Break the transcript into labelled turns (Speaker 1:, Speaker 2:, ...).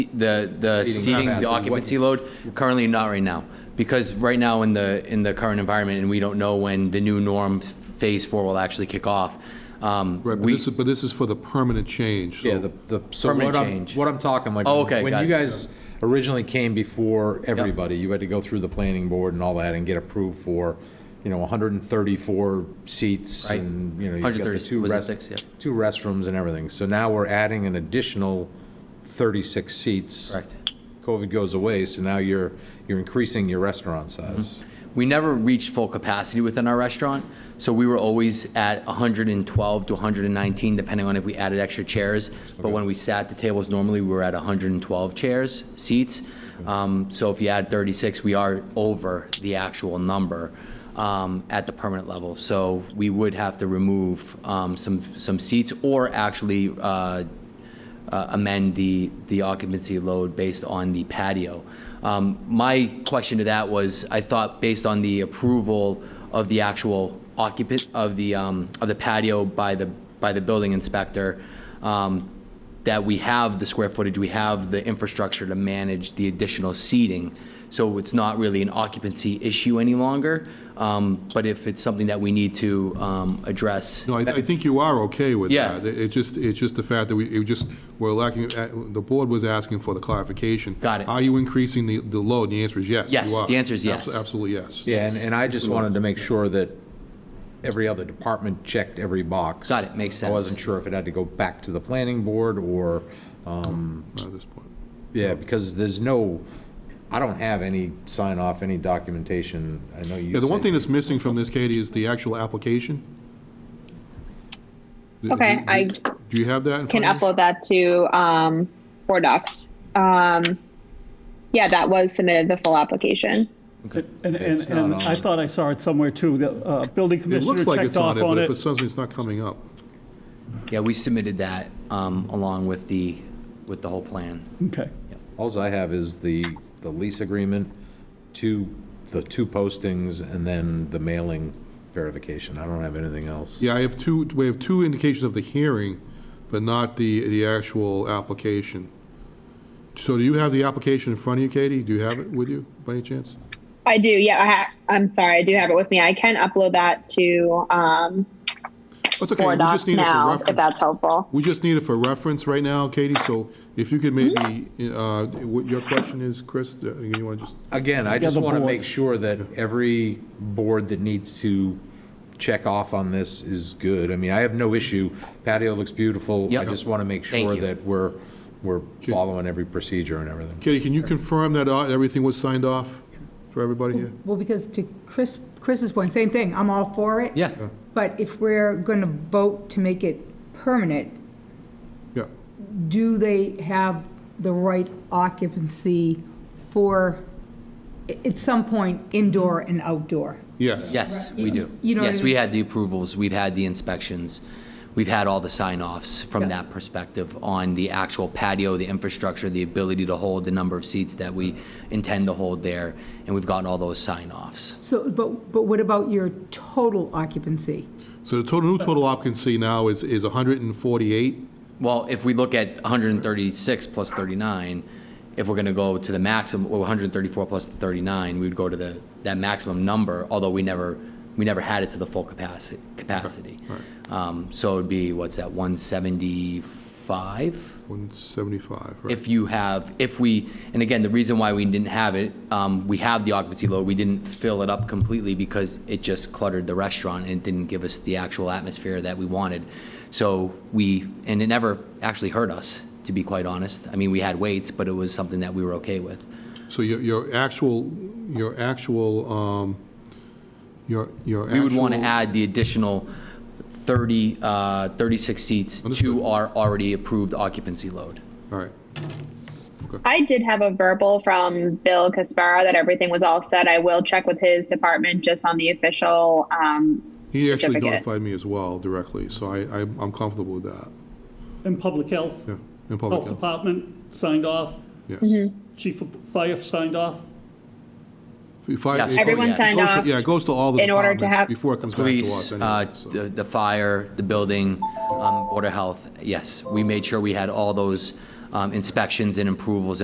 Speaker 1: The, the seating,
Speaker 2: capacity,
Speaker 1: the
Speaker 2: what
Speaker 1: occupancy load, currently not right now. Because right now in the, in the current environment, and we don't know when the new norm phase four will actually kick off. um,
Speaker 3: Right, but
Speaker 1: we-
Speaker 3: this is, but this is for the permanent change, so.
Speaker 2: Yeah, the, the, so
Speaker 1: Permanent
Speaker 2: what I'm,
Speaker 1: change.
Speaker 2: what I'm talking, like.
Speaker 1: Oh, okay, got
Speaker 2: When you
Speaker 1: it.
Speaker 2: guys originally came before everybody, you had to go through the planning board and all that and get approved for, you know, hundred and thirty-four seats
Speaker 1: Right.
Speaker 2: and, you know. you've got the
Speaker 1: 130,
Speaker 2: two
Speaker 1: was it
Speaker 2: rest-
Speaker 1: six? Yeah.
Speaker 2: Two restrooms and everything. So now we're adding an additional thirty-six seats.
Speaker 1: Correct.
Speaker 2: COVID goes away, so now you're, you're increasing your restaurant size.
Speaker 1: We never reached full capacity within our restaurant, so we were always at 112 to 119, depending on if we added extra chairs. But when we sat the tables, normally we were at 112 chairs, seats. Um, So if you add 36, we are over the actual number um, at the permanent level. So we would have to remove um, some, some seats or actually uh, uh, amend the, the occupancy load based on the patio. Um, My question to that was, I thought based on the approval of the actual occupant, of the, um, of the patio by the, by the building inspector, um, that we have the square footage, we have the infrastructure to manage the additional seating. So it's not really an occupancy issue any longer, um, but if it's something that we need to um, address.
Speaker 3: No, I, I think you are okay with
Speaker 1: Yeah.
Speaker 3: that. It- It's just, it's just the fact that we, it just, we're lacking, uh, the board was asking for the clarification.
Speaker 1: Got it.
Speaker 3: Are you increasing the, the load? And the answer is yes. you
Speaker 1: Yes,
Speaker 3: are.
Speaker 1: the answer is yes.
Speaker 3: Abso- Absolutely, yes.
Speaker 2: Yeah, and, and I just wanted to make sure that every other department checked every box.
Speaker 1: Got it, makes
Speaker 2: I
Speaker 1: sense.
Speaker 2: wasn't sure if it had to go back to the planning board or, um,
Speaker 3: At this point.
Speaker 2: yeah, because there's no, I don't have any sign off, any documentation. I know you.
Speaker 3: Yeah, the one
Speaker 2: said-
Speaker 3: thing that's missing from this, Katie, is the actual application. Do-
Speaker 4: Okay,
Speaker 3: do-
Speaker 4: I
Speaker 3: Do you have that in
Speaker 4: can
Speaker 3: front of you?
Speaker 4: upload that to um, Board Docs. Um, yeah, that was submitted the full application.
Speaker 5: And, and,
Speaker 2: It's not
Speaker 5: and
Speaker 2: on.
Speaker 5: I thought I saw it somewhere too, the, uh, building
Speaker 3: It
Speaker 5: commissioner
Speaker 3: looks like
Speaker 5: checked
Speaker 3: it's on
Speaker 5: off
Speaker 3: it, but
Speaker 5: on
Speaker 3: if it's
Speaker 5: it.
Speaker 3: something that's not coming up.
Speaker 1: Yeah, we submitted that um, along with the, with the whole plan.
Speaker 5: Okay,
Speaker 2: Alls I have is the, the lease agreement, two, the two postings, and then the mailing verification. I don't have anything else.
Speaker 3: Yeah, I have two, we have two indications of the hearing, but not the, the actual application. So do you have the application in front of you, Katie? Do you have it with you, by any chance?
Speaker 4: I do. Yeah, I ha- I'm sorry, I do have it with me. I can upload that to um,
Speaker 3: That's okay, we
Speaker 4: Board
Speaker 3: just
Speaker 4: Docs
Speaker 3: need it for
Speaker 4: now if
Speaker 3: reference.
Speaker 4: that's helpful.
Speaker 3: We just need it for reference right now, Katie, so if you could maybe, uh, what your question is, Chris, uh, you want to just,
Speaker 2: Again, I just
Speaker 5: the
Speaker 2: want to make
Speaker 5: boards.
Speaker 2: sure that every board that needs to check off on this is good. I mean, I have no issue. Patio looks beautiful. I
Speaker 1: Yep.
Speaker 2: just want to make
Speaker 1: Thank
Speaker 2: sure
Speaker 1: you.
Speaker 2: that we're, we're following every procedure and everything.
Speaker 3: Katie, can you confirm that uh, everything was signed off for everybody here?
Speaker 6: Well, because to Chris, Chris's point, same thing, I'm all for it.
Speaker 1: Yeah.
Speaker 6: But if we're gonna vote to make it permanent,
Speaker 3: Yeah,
Speaker 6: do they have the right occupancy for, at some point, indoor and outdoor?
Speaker 3: yes.
Speaker 1: Yes, we do.
Speaker 6: You know what
Speaker 1: Yes,
Speaker 6: I
Speaker 1: we
Speaker 6: mean?
Speaker 1: had the approvals, we've had the inspections, we've had all the sign-offs from
Speaker 6: Yeah.
Speaker 1: that perspective on the actual patio, the infrastructure, the ability to hold the number of seats that we intend to hold there, and we've gotten all those sign-offs.
Speaker 6: So, but, but what about your total occupancy?
Speaker 3: So the total, new total occupancy now is, is 148?
Speaker 1: Well, if we look at 136 plus 39, if we're going to go to the maximum, well, 134 plus 39, we would go to the, that maximum number, although we never, we never had it to the full capacity, capacity. Um, So it'd be, what's that, 175?
Speaker 3: 175, right?
Speaker 1: if you have, if we, and again, the reason why we didn't have it, um, we have the occupancy load, we didn't fill it up completely because it just cluttered the restaurant and it didn't give us the actual atmosphere that we wanted. So we, and it never actually hurt us, to be quite honest. I mean, we had waits, but it was something that we were okay with.
Speaker 3: So your, your actual, your actual, um, your, your actual.
Speaker 1: We would want to add the additional 30, uh, 36 seats
Speaker 3: Understood.
Speaker 1: to our already approved occupancy load.
Speaker 3: All right,
Speaker 4: I did have a verbal from Bill Caspara that everything was all set. I will check with his department just on the official. Um,
Speaker 3: he actually
Speaker 4: Certificate.
Speaker 3: notified me as well directly, so I, I- I'm comfortable with that,
Speaker 5: and public health,
Speaker 3: yeah, in public
Speaker 4: Oh,
Speaker 5: health
Speaker 4: uh,
Speaker 3: health,
Speaker 5: department signed off,
Speaker 3: yes.
Speaker 4: mm-hmm.
Speaker 5: chief of fire signed off.
Speaker 3: If I-
Speaker 1: Yes.
Speaker 3: it
Speaker 4: Everyone
Speaker 3: goes-
Speaker 4: signed
Speaker 3: it goes to-
Speaker 4: off
Speaker 3: Yeah, it goes to all the
Speaker 4: in order to
Speaker 3: departments
Speaker 4: have-
Speaker 3: before it comes back to
Speaker 1: police,
Speaker 3: us
Speaker 1: uh,
Speaker 3: anyway, so.
Speaker 1: the the fire, the building, um, border health, yes. We made sure we had all those um, inspections and approvals